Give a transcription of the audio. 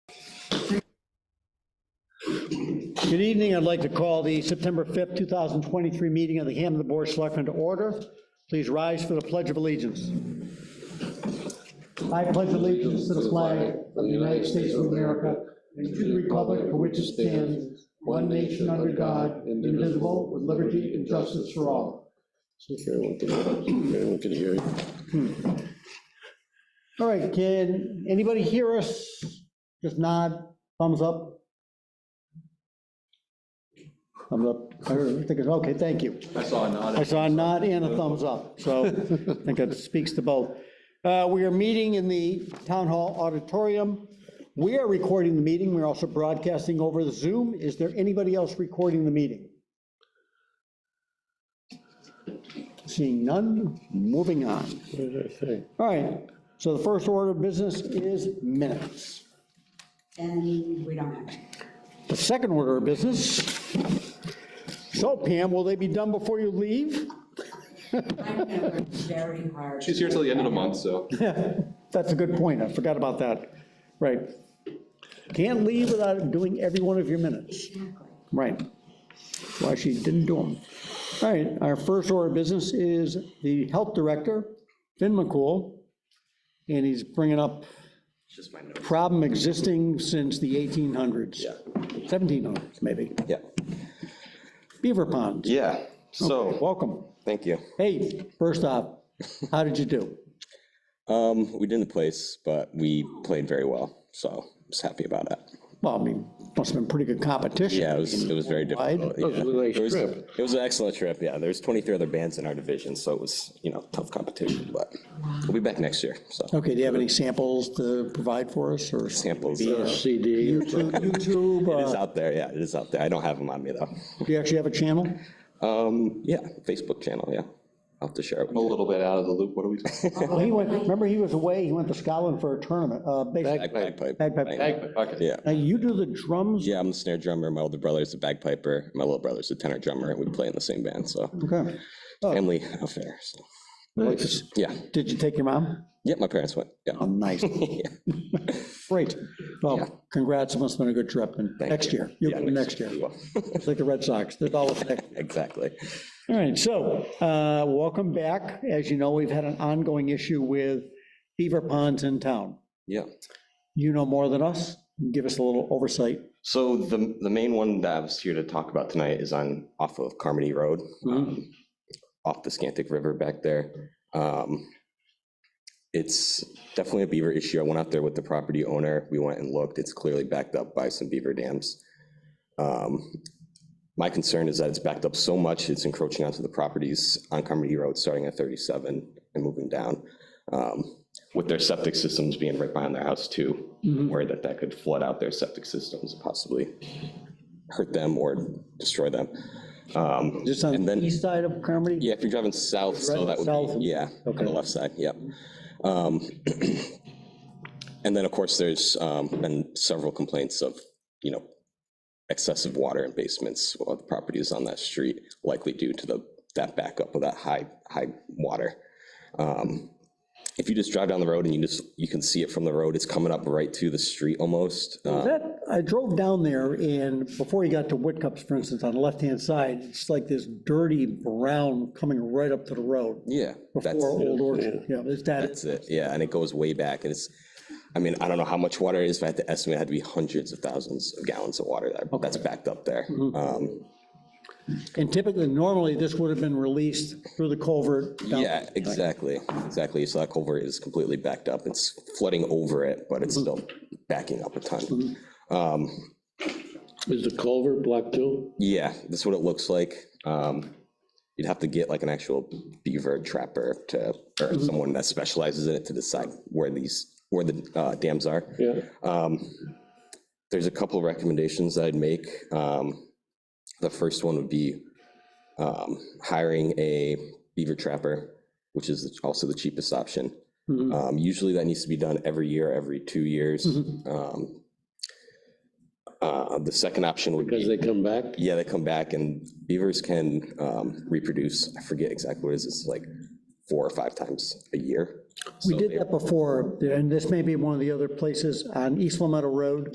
Good evening. I'd like to call the September 5th, 2023 meeting of the Hampton Board of Selectmen to order. Please rise for the Pledge of Allegiance. I pledge allegiance to the flag of the United States of America and to the republic for which it stands, one nation under God, indivisible, with liberty and justice for all. Everyone can, everyone can hear you. All right, can anybody hear us? Just nod, thumbs up. Thumbs up. I don't think it's- Okay, thank you. I saw a nod. I saw a nod and a thumbs up, so I think that speaks to both. Uh, We are meeting in the Town Hall Auditorium. We are recording the meeting, we're also broadcasting over the Zoom. Is there anybody else recording the meeting? Seeing none, moving on. Okay. All right, so the first order of business is minutes. And we don't have it. The second order of business. So Pam, will they be done before you leave? I'm gonna work very hard. She's here till the end of the month, so. That's a good point, I forgot about that. Right. Can't leave without doing every one of your minutes. Exactly. Right. Why she didn't do them. All right, our first order of business is the health director, Finn McCool, and he's bringing up Just my note. problem existing since the 1800s. Yeah. 1700s, maybe. Yeah, Beaver ponds. yeah, so, Welcome. thank you. Hey, first off, how did you do? Um, we didn't place, but we played very well, so I was happy about it. Well, I mean, must have been pretty good competition. Yeah, it was, it was very difficult. yeah. a nice It was- trip. It was an excellent trip, yeah. There was 23 other bands in our division, so it was, you know, tough competition, but we'll be back next year, so. Okay, do you have any samples to provide for us or? Samples, uh, CD. YouTube, YouTube, it is uh, out there, yeah, it is out there. I don't have them on me, though. do you actually have a channel? Um, yeah, Facebook channel, yeah. I'll have to share it with A you. little bit out of the loop, what are we talking Well, he went, remember, he was away, he went to Scotland for a tournament, uh, basically. Bagpipe. Bagpipe. Bang. about? Okay. Yeah, Now, you do the drums? yeah, I'm the snare drummer, my older brother's a bagpiper, my little brother's a tenor drummer, and we play in the same band, so. Okay. family affair. So, yeah. Did you take your mom? Yeah, my parents went. Yeah. Oh, nice. Great. Well, congrats, it must have been a good trip, and next year, you'll Yeah, go next year. Well, It's like the Red Sox, they're always next. Exactly. All right, so, uh, welcome back. As you know, we've had an ongoing issue with beaver ponds in town. Yeah. You know more than us, give us a little oversight. So the, the main one that I was here to talk about tonight is on, off of Carmody Road, um, off the Scantic River back there. Um, It's definitely a beaver issue. I went out there with the property owner. We went and looked. It's clearly backed up by some beaver dams. Um, My concern is that it's backed up so much, it's encroaching onto the properties on Carmody Road, starting at 37 and moving down. Um, With their septic systems being right behind their house too, worried that that could flood out their septic systems and possibly hurt them or destroy them. Um, Just on And the then- east side of Carmody? yeah, if you're driving south, so that South. would be, yeah, on the left side, yep. Um, And then, of course, there's um, been several complaints of, you know, excessive water in basements of the properties on that street, likely due to the, that backup of that high, high water. Um, If you just drive down the road and you just, you can see it from the road, it's coming up right to the street almost. Uh, That, I drove down there and before you got to Whitcups, for instance, on the left-hand side, it's like this dirty brown coming right up to the road Yeah. that's- before Old Orchard. Yeah, it's that, That's it, yeah, and it goes way back, and it's, I mean, I don't know how much water it is, but I had to estimate it had to be hundreds of thousands of gallons of water that- that's backed up there. Um, and typically, normally, this would have been released through the culvert. down- Yeah, exactly, exactly, so that culvert is completely backed up, it's flooding over it, but it's still backing up a ton. Is the culvert blocked too? Yeah, that's what it looks like. Um, You'd have to get like an actual beaver trapper to, or someone that specializes in it to decide where these, where the uh, dams are. Yeah. there's a couple recommendations that I'd make. Um, The first one would be um, hiring a beaver trapper, which is also the cheapest option. Mm-hmm. Um, Usually that needs to be done every year, every two years. Mm-hmm. Um, uh, The second option would Because be, they come back? yeah, they come back and beavers can um, reproduce. I forget exactly what it is, it's like four or five times a year. We did that before, and this may be one of the other places on East Lametta Road.